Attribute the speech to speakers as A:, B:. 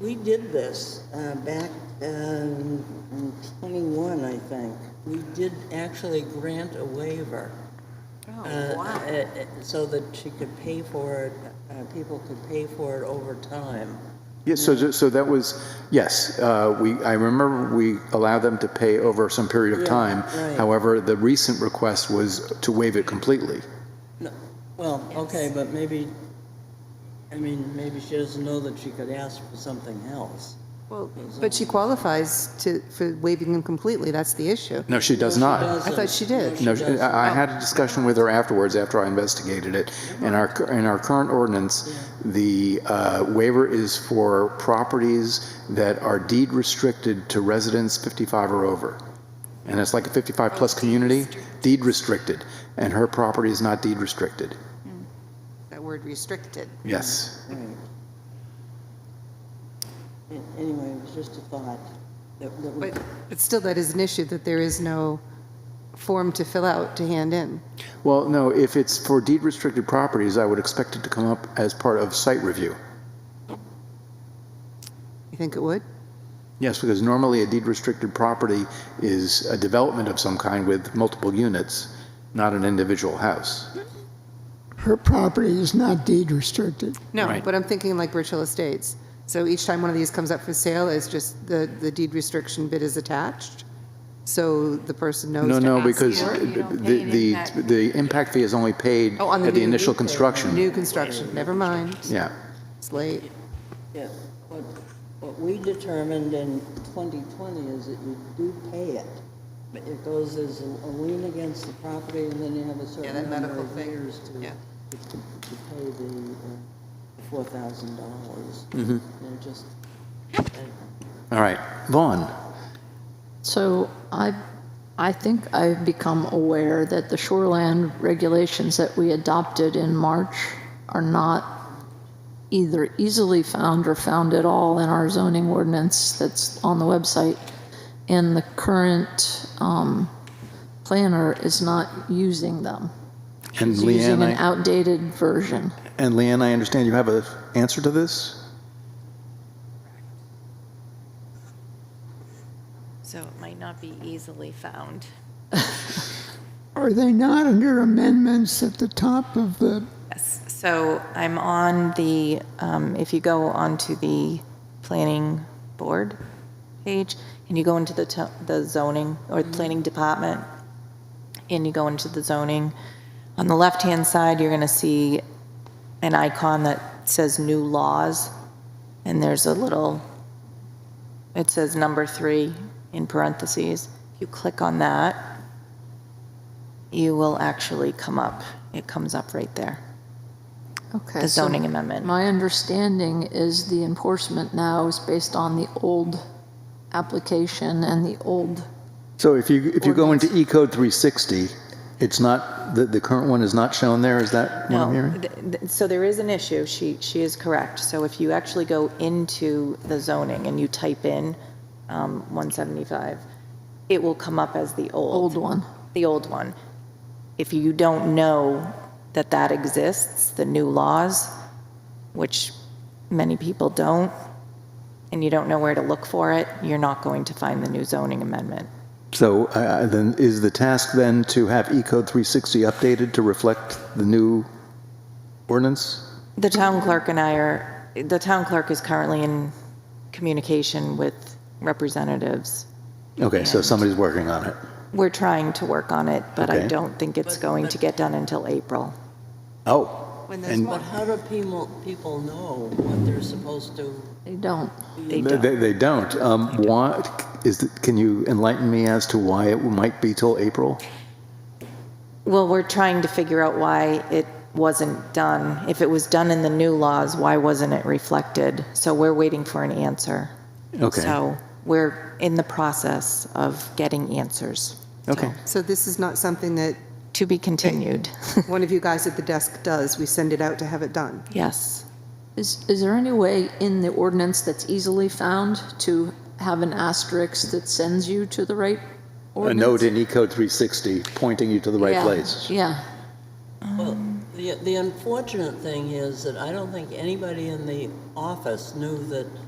A: We did this uh, back um, in 21, I think. We did actually grant a waiver.
B: Oh,
A: uh, uh, uh, So that she could pay for it, uh, people could pay for it over time.
C: Yes, so, so that was, yes, uh, we, I remember we allowed them to pay over some period of
A: Yeah,
C: time.
A: right.
C: However, the recent request was to waive it completely.
A: No, Well, okay, but maybe, I mean, maybe she doesn't know that she could ask for something else.
B: Well, but she qualifies to, for waiving them completely, that's the issue.
C: No, she does not.
A: doesn't.
B: I thought she did.
A: No, she
C: No,
A: doesn't.
C: I I had a discussion with her afterwards, after I investigated it. In our, cur- in our current ordinance, the uh, waiver is for properties that are deed restricted to residents 55 or over. And it's like a 55-plus community, deed restricted, and her property is not deed restricted.
B: That word restricted.
C: Yes.
A: Right. An- Anyway, it was just a thought that that we,
B: But, but still, that is an issue, that there is no form to fill out, to hand in.
C: Well, no, if it's for deed restricted properties, I would expect it to come up as part of site review.
B: You think it would?
C: Yes, because normally a deed restricted property is a development of some kind with multiple units, not an individual house.
D: Her property is not deed restricted.
B: No,
C: Right.
B: but I'm thinking like Birchill Estates. So each time one of these comes up for sale, it's just the, the deed restriction bit is attached, so the person knows
C: No,
B: to
C: no,
B: ask
C: because
B: for it.
E: you don't
C: the,
E: pay an
C: the,
E: impact.
C: the impact fee is only paid
B: Oh, on the
C: at the
B: new-
C: initial construction.
B: New construction, never mind,
C: Yeah,
B: it's late.
A: yeah, what, what we determined in 2020 is that you do pay it. But it goes as a a lien against the property and then you have a certain
B: that
A: number
B: medical
A: of
B: thing,
A: years to,
B: yeah.
A: to to pay the uh, $4,000. They're just,
C: all right. Vaughn,
E: So I, I think I've become aware that the shoreland regulations that we adopted in March are not either easily found or found at all in our zoning ordinance that's on the website. And the current um, planner is not using them.
C: and
E: He's using
C: Leanne,
E: an
C: I-
E: outdated version.
C: and Leanne, I understand you have an answer to this?
F: So it might not be easily found.
D: Are they not under amendments at the top of the,
F: Yes, so I'm on the, um, if you go onto the planning board page, and you go into the to- the zoning, or the planning department, and you go into the zoning, on the left-hand side, you're going to see an icon that says new laws, and there's a little, it says number three in parentheses. If you click on that, you will actually come up, it comes up right there.
E: Okay.
F: the
E: so
F: zoning amendment.
E: My understanding is the enforcement now is based on the old application and the old
C: So if you, if you go into E E-code 360, it's not, the, the current one is not shown there, is that what I'm hearing?
F: No, th- th- so there is an issue, she, she is correct. So if you actually go into the zoning and you type in um, 175, it will come up as the
E: old
F: old,
E: one.
F: the old one. If you don't know that that exists, the new laws, which many people don't, and you don't know where to look for it, you're not going to find the new zoning amendment.
C: So uh, then, is the task then to have E Ecode 360 updated to reflect the new ordinance?
F: The town clerk and I are, the town clerk is currently in communication with representatives.
C: Okay, so somebody's working on it.
F: We're trying to work on it, but I
C: Okay.
F: don't think it's going to get done until April.
C: Oh,
B: When there's
C: and
A: but how do people, people know what they're supposed to?
E: They don't.
F: They don't.
C: they, they don't. Um, why, is, the- can you enlighten me as to why it might be till April?
F: Well, we're trying to figure out why it wasn't done. If it was done in the new laws, why wasn't it reflected? So we're waiting for an answer.
C: Okay.
F: So we're in the process of getting answers.
C: Okay.
B: So this is not something that
F: To be continued.
B: one of you guys at the desk does, we send it out to have it done.
F: Yes.
E: Is, is there any way in the ordinance that's easily found to have an asterisk that sends you to the right
C: A
E: ordinance?
C: note in E Ecode 360 pointing you to the right
E: Yeah,
C: place.
E: Yeah.
A: Well, the, the unfortunate thing is that I don't think anybody in the office knew that